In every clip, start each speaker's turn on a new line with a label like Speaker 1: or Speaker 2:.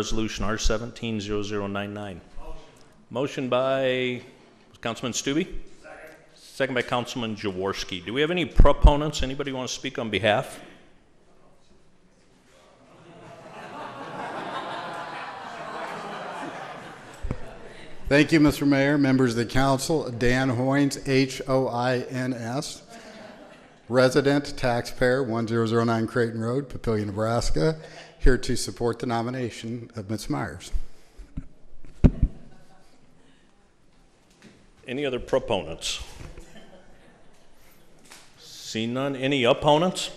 Speaker 1: Resolution R seventeen zero zero nine nine. Motion by Councilman Stube? Second. Second by Councilman Jaworski. Do we have any proponents? Anybody want to speak on behalf?
Speaker 2: Thank you, Mr. Mayor, members of the council. Dan Hoynes, H-O-I-N-S, resident, taxpayer, 1009 Creighton Road, Papillion, Nebraska, here to support the nomination of Ms. Myers.
Speaker 1: Any other proponents? See none. Any opponents?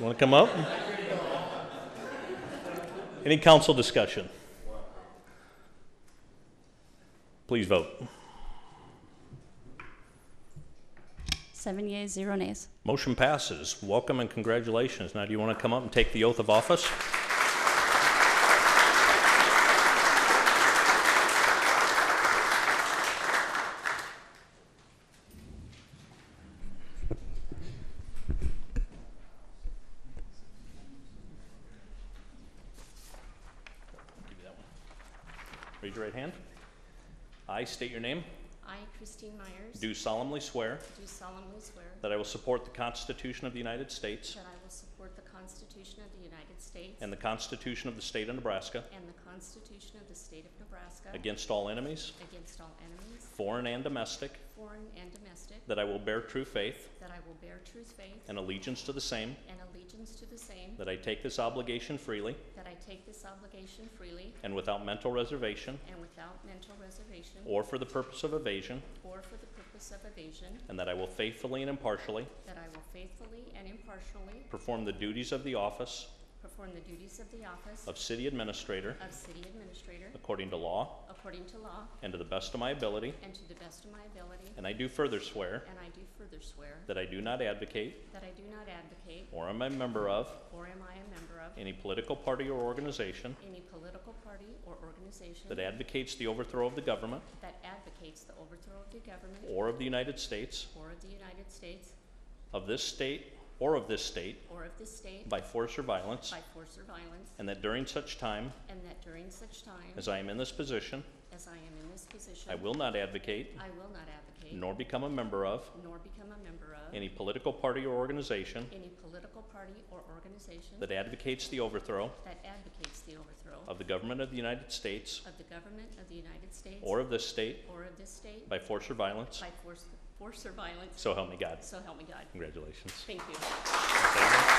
Speaker 1: Want to come up? Any council discussion? Please vote.
Speaker 3: Seven yeas, zero nays.
Speaker 1: Motion passes. Welcome and congratulations. Now, do you want to come up and take the oath of office? Give you that one. Raise your right hand. I state your name.
Speaker 4: I, Christine Myers, do
Speaker 1: Do solemnly swear
Speaker 4: solemnly swear
Speaker 1: that I will support the Constitution of the United States.
Speaker 4: that I will support the Constitution of the United States
Speaker 1: And the Constitution of the State of Nebraska.
Speaker 4: and the Constitution of the State of Nebraska
Speaker 1: Against all enemies,
Speaker 4: against all enemies,
Speaker 1: foreign and domestic.
Speaker 4: foreign and domestic,
Speaker 1: That I will bear true faith
Speaker 4: that I will bear true faith
Speaker 1: and allegiance to the same.
Speaker 4: and allegiance to the same,
Speaker 1: That I take this obligation freely
Speaker 4: that I take this obligation freely
Speaker 1: and without mental reservation
Speaker 4: and without mental reservation
Speaker 1: or for the purpose of evasion.
Speaker 4: or for the purpose of evasion,
Speaker 1: And that I will faithfully and impartially
Speaker 4: that I will faithfully and impartially
Speaker 1: perform the duties of the office
Speaker 4: perform the duties of the office
Speaker 1: of City Administrator
Speaker 4: of City Administrator
Speaker 1: according to law
Speaker 4: according to law
Speaker 1: and to the best of my ability.
Speaker 4: and to the best of my ability,
Speaker 1: And I do further swear
Speaker 4: and I do further swear
Speaker 1: that I do not advocate
Speaker 4: That I do not advocate,
Speaker 1: or am a member of
Speaker 4: or am I a member of,
Speaker 1: any political party or organization
Speaker 4: any political party or organization
Speaker 1: that advocates the overthrow of the government
Speaker 4: that advocates the overthrow of the government
Speaker 1: or of the United States
Speaker 4: or of the United States
Speaker 1: of this state or of this state
Speaker 4: or of this state
Speaker 1: by force or violence,
Speaker 4: by force or violence,
Speaker 1: and that during such time
Speaker 4: and that during such time
Speaker 1: as I am in this position,
Speaker 4: as I am in this position,
Speaker 1: I will not advocate
Speaker 4: I will not advocate
Speaker 1: nor become a member of
Speaker 4: nor become a member of
Speaker 1: any political party or organization
Speaker 4: any political party or organization
Speaker 1: that advocates the overthrow
Speaker 4: that advocates the overthrow
Speaker 1: of the government of the United States
Speaker 4: of the government of the United States
Speaker 1: or of this state
Speaker 4: or of this state
Speaker 1: by force or violence.
Speaker 4: by force force or violence.
Speaker 1: So help me God.
Speaker 4: So help me God.
Speaker 1: Congratulations.
Speaker 4: Thank you.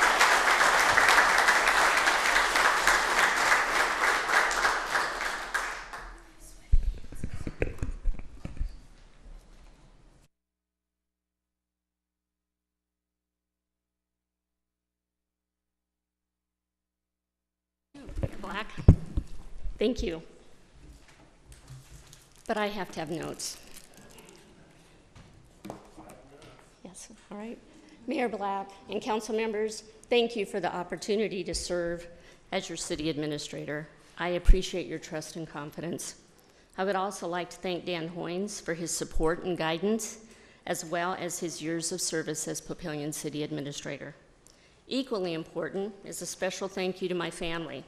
Speaker 4: Mayor Black, thank you. But I have to have notes. Yes, all right. Mayor Black and council members, thank you for the opportunity to serve as your city administrator. I appreciate your trust and confidence. I would also like to thank Dan Hoynes for his support and guidance, as well as his years of service as Papillion City Administrator. Equally important is a special thank you to my family.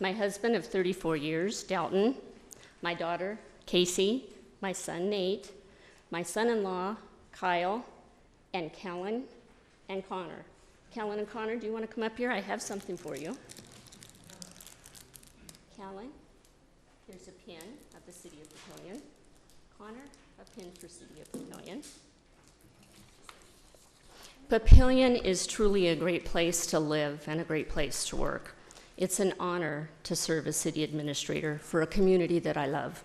Speaker 4: My husband of 34 years, Dalton, my daughter, Casey, my son, Nate, my son-in-law, Kyle, and Kellen and Connor. Kellen and Connor, do you want to come up here? I have something for you. Kellen, here's a pin of the City of Papillion. Connor, a pin for City of Papillion. Papillion is truly a great place to live and a great place to work. It's an honor to serve as city administrator for a community that I love.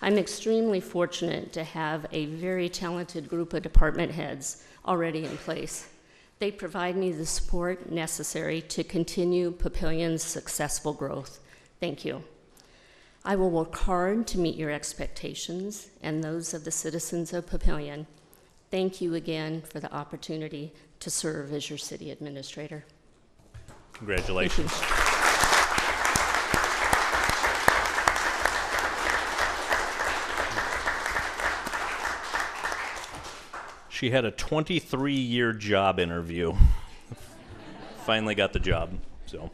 Speaker 4: I'm extremely fortunate to have a very talented group of department heads already in place. They provide me the support necessary to continue Papillion's successful growth. Thank you. I will work hard to meet your expectations and those of the citizens of Papillion. Thank you again for the opportunity to serve as your city administrator.
Speaker 1: Congratulations. She had a 23 year job interview. Finally got the job. So,